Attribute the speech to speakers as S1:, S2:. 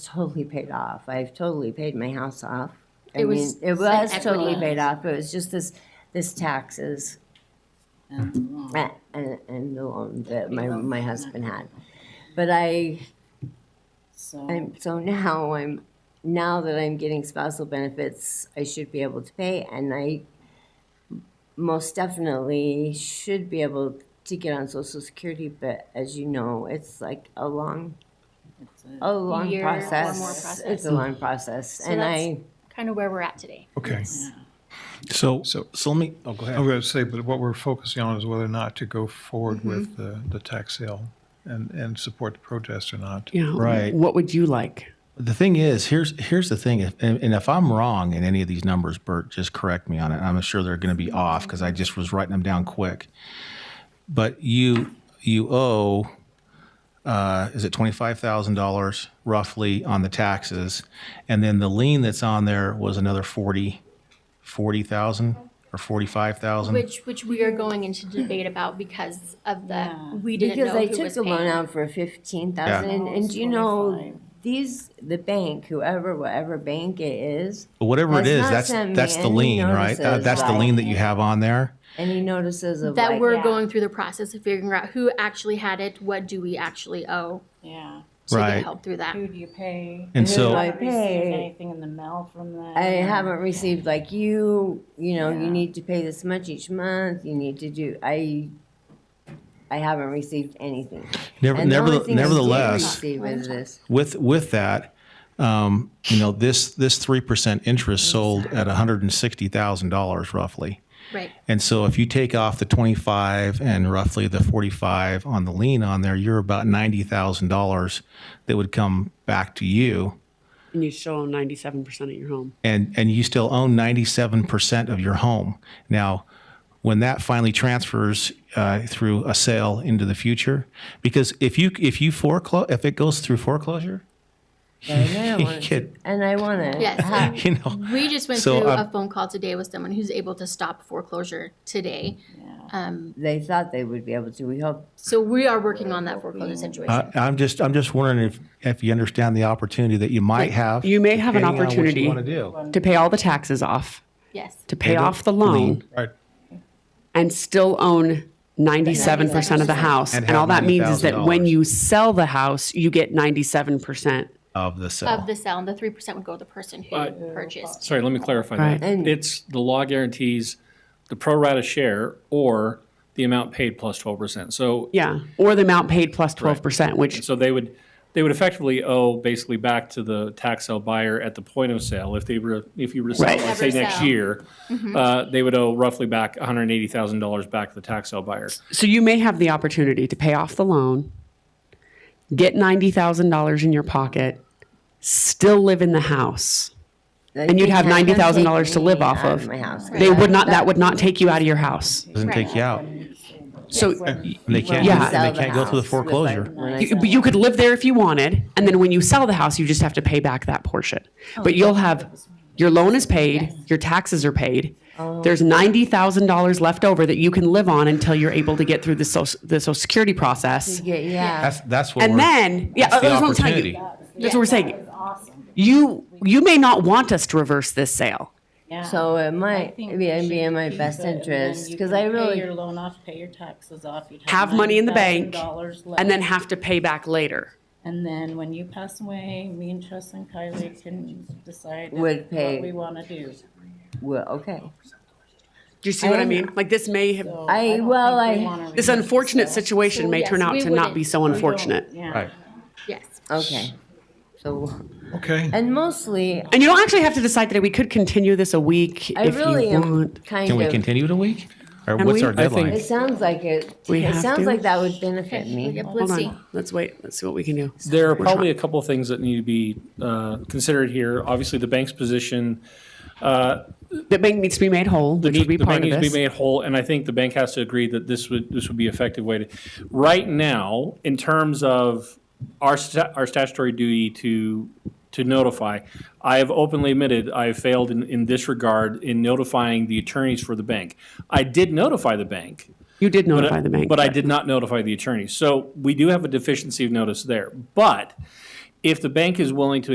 S1: totally paid off. I've totally paid my house off. I
S2: It
S1: mean,
S2: was
S1: it
S2: like
S1: was totally
S2: equity.
S1: paid off. It was just this, this taxes
S3: And,
S4: Hmm.
S1: a- and, and the loan that my,
S3: loan.
S1: my husband had. But I,
S3: So,
S1: I'm, so now I'm, now that I'm getting spousal benefits, I should be able to pay and I most definitely should be able to get on social security, but as you know, it's like a long,
S3: it's a-
S1: a long
S2: Year or more
S1: process.
S2: process.
S1: It's a long process and
S2: that's-
S1: I.
S2: kind of where we're at today.
S5: Okay,
S6: So,
S5: So-
S6: so let me, oh, go
S5: I was
S6: ahead.
S5: going to say, but what we're focusing on is whether or not to go forward with the, the tax sale and, and support the protest or not.
S4: Yeah.
S6: Right.
S4: What would you like?
S6: The thing is, here's, here's the thing, if- and and if I'm wrong in any of these numbers, Bert, just correct me on it. I'm sure they're going to be off because I just was writing them down quick. But you, you owe, uh, is it $25,000 roughly on the taxes? And then the lien that's on there was another 40, 40,000 or 45,000?
S2: Which, which we are going into debate about because of the, we didn't
S1: Because
S2: know
S1: I
S2: who
S1: took
S2: was
S1: the loan
S2: paying.
S1: out for fifteen thousand,
S6: Yeah.
S1: and, and do you know, these, the bank, whoever, whatever bank it is,
S6: But whatever it
S1: That's
S6: is,
S1: not
S6: that's,
S1: sent me
S6: that's the
S1: any
S6: lien, right? That-
S1: notices,
S6: That's the
S1: right.
S6: lien that you have on there.
S1: any notices of
S2: That
S1: like-
S2: we're
S3: yeah.
S2: going through the process of figuring out who actually had it, what do we actually owe
S3: Yeah.
S2: to
S6: Right.
S2: get help through that.
S3: Who do you pay?
S6: And
S1: Who
S6: so.
S1: do I
S3: Have you received
S1: pay.
S3: Anything in the mail from them?
S1: I haven't received like you, you know, you
S3: Yeah.
S1: need to pay this much each month, you need to do, I, I haven't received anything.
S6: Never,
S1: And the only
S6: neverthe-
S1: thing I did
S6: nevertheless,
S1: receive is this.
S6: with with that, um, you know this this three percent interest sold at one hundred and sixty thousand dollars roughly.
S2: Right.
S6: And so if you take off the twenty five and roughly the forty five on the lien on there, you're about ninety thousand dollars that would come back to you,
S4: And you still own 97% of your home.
S6: and and you still own ninety seven percent of your home now. When that finally transfers uh, through a sale into the future, because if you if you foreclose if it goes through foreclosure,
S1: And I wanna-
S6: Kid.
S1: And I wanna.
S2: Yes.
S1: ha-
S6: you know
S2: We just went
S6: So,
S2: through
S6: um,
S2: a phone call today with someone who's able to stop foreclosure today.
S1: They thought they would be able to, we hope,
S2: So we are working on that foreclosure situation.
S6: I- I'm just, I'm just wondering if, if you understand the opportunity that you might have.
S4: You may have an
S6: depending on what you
S4: opportunity
S6: wanna do.
S4: to pay all the taxes off,
S2: Yes.
S4: to pay
S6: And the
S4: off the loan,
S5: Right,
S4: and still own 97% of the house.
S6: And
S4: And all
S6: have
S4: that means is that when
S6: $90,000.
S4: you sell the house, you get 97%.
S6: Of the
S2: Of
S6: sale.
S2: the sale, and the three percent would go to the person who
S7: But-
S2: purchased.
S7: Sorry, let me clarify
S4: Right.
S7: that.
S1: And-
S7: It's the law guarantees the pro rata share or the amount paid plus twelve percent. So,
S4: Yeah. Or the amount paid plus 12%, which
S7: so they would, they would effectively owe basically back to the tax sale buyer at the point of sale. If they were, if you were to sell,
S4: Right.
S7: let's say
S2: Never
S7: next
S2: sell. Mm-hmm.
S7: year, uh, they would owe roughly back one hundred and eighty thousand dollars back to the tax sale buyer.
S4: So you may have the opportunity to pay off the loan, get $90,000 in your pocket, still live in the house.
S1: And
S4: you'd have $90,000 to live off of.
S1: My house.
S4: They would not, that would not take you out of your house.
S6: Doesn't take you out.
S4: So
S6: And they can't,
S4: Yeah.
S6: and they can't go through the foreclosure.
S4: you, but you could live there if you wanted, and then when you sell the house, you just have to pay back that portion.
S2: Oh,
S4: But you'll have, your loan is paid, your taxes are paid.
S2: Oh.
S4: There's $90,000 left over that you can live on until you're able to get through the social, the social security process.
S1: Yeah, yeah.
S6: That's, that's what we're.
S4: And then, yeah,
S6: that's the
S4: that's what I'm telling you.
S6: opportunity.
S4: That's what we're saying. You, you may not want us to reverse this sale.
S3: Yeah.
S1: So it
S3: Um, I
S1: might
S3: think
S1: be,
S3: we
S1: it'd be
S3: should
S1: in my
S3: keep
S1: best
S3: it, and then
S1: interest,
S3: you
S1: because
S3: can
S1: I
S3: Pay your
S1: really,
S3: loan off, pay your taxes off. you'd
S4: Have money in the bank,
S3: $90,000 left.
S4: and then have to pay back later.
S3: And then when you pass away, me and Tress and Kylie can decide.
S1: Would
S3: what
S1: pay.
S3: We wanna do.
S1: well, okay.
S4: Do you see what I
S2: Oh,
S1: I'm-
S4: mean? Like this may have,
S3: So
S1: I-
S3: don't
S1: well,
S3: think we
S1: I-
S3: wanna
S4: this
S3: reverse
S4: unfortunate
S3: this.
S4: situation may
S2: Yes,
S4: turn out
S2: we
S4: to not be
S2: wouldn't.
S4: so unfortunate.
S3: Yeah.
S2: Yes.
S1: Okay. So,
S5: okay.
S1: and mostly,
S4: And you don't actually have to decide today. We could continue this a week
S1: I
S4: if
S1: really
S4: you
S1: am
S4: want.
S1: kind
S6: Can we
S1: of,
S6: continue it a week? Or what's
S4: we?
S6: our
S4: I think-
S6: deadline?
S1: it sounds like it,
S4: We
S1: it
S4: have
S1: sounds
S4: to?
S1: like that would benefit me.
S2: Yep,
S4: Hold
S2: let's see.
S4: on. Let's wait. Let's see what we can do.
S7: There are probably a couple of things that need to be uh, considered here. Obviously, the bank's position,
S4: The bank needs to be made whole,
S7: The
S4: which would
S7: need-
S4: be
S7: the
S4: part
S7: bank
S4: of
S7: needs to be
S4: this.
S7: made whole, and I think the bank has to agree that this would, this would be effective way to, right now, in terms of our, sta- our statutory duty to, to notify, I have openly admitted I have failed in, in this regard in notifying the attorneys for the bank. I did notify the bank,
S4: You did
S7: but I-
S4: notify the bank.
S7: But I did not notify the attorney. So we do have a deficiency of notice there. But if the bank is willing to